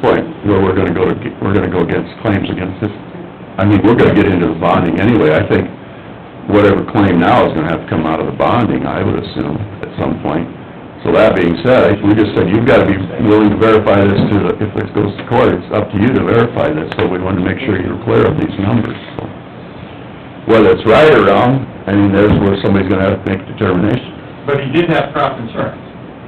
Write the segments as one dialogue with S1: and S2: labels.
S1: quite where we're gonna go to, ge- we're gonna go against claims against this. I mean, we're gonna get into the bonding anyway. I think whatever claim now is gonna have to come out of the bonding, I would assume, at some point. So that being said, we just said, you've gotta be willing to verify this to the, if this goes to court, it's up to you to verify this, so we wanted to make sure you're clear of these numbers, so. Whether it's right or wrong, I mean, there's where somebody's gonna have to make determination.
S2: But he did have crop insurance,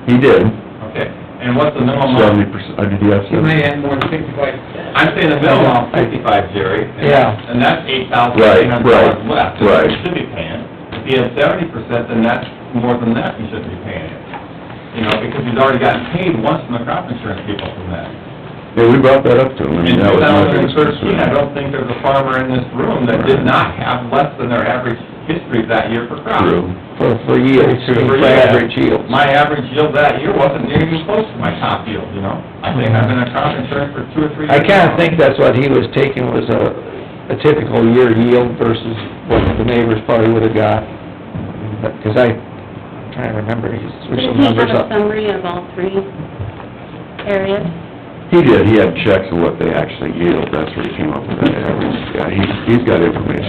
S1: He did,
S2: okay, and what's the minimum?
S1: seventy percent, did he have
S3: You
S1: seventy?
S3: may add more than fifty-five.
S2: I'm saying the minimum fifty-five, Jerry. and-
S3: Yeah.
S2: And that's eight thousand
S1: Right,
S2: eight hundred
S1: right,
S2: dollars left.
S1: right.
S2: He should be paying. If he has seventy percent, then that's more than that he should be paying. You know, because he's already gotten paid once from the crop insurance people from that.
S1: Yeah, we brought that up to him, I
S2: In
S1: mean, that
S2: two
S1: was my
S2: thousand and
S1: biggest
S2: thirteen,
S1: concern.
S2: I don't think there's a farmer in this room that did not have less than their average history that year for crop.
S1: True.
S3: For, for yields,
S2: for average My average yield that year wasn't near even close to my top yield, you know? I think I've been in crop insurance for two or three
S3: I
S2: years.
S3: kinda
S2: now.
S3: think that's what he was taking was a, a typical year yield versus what the neighbors probably would've got. But- Cause I, trying to remember, he threw
S4: Did
S3: some
S4: he have
S3: numbers
S4: a
S3: up.
S4: summary of all three areas?
S1: He did, he had checks of what they actually yield, that's where he came up with that average, yeah, he, he's got information.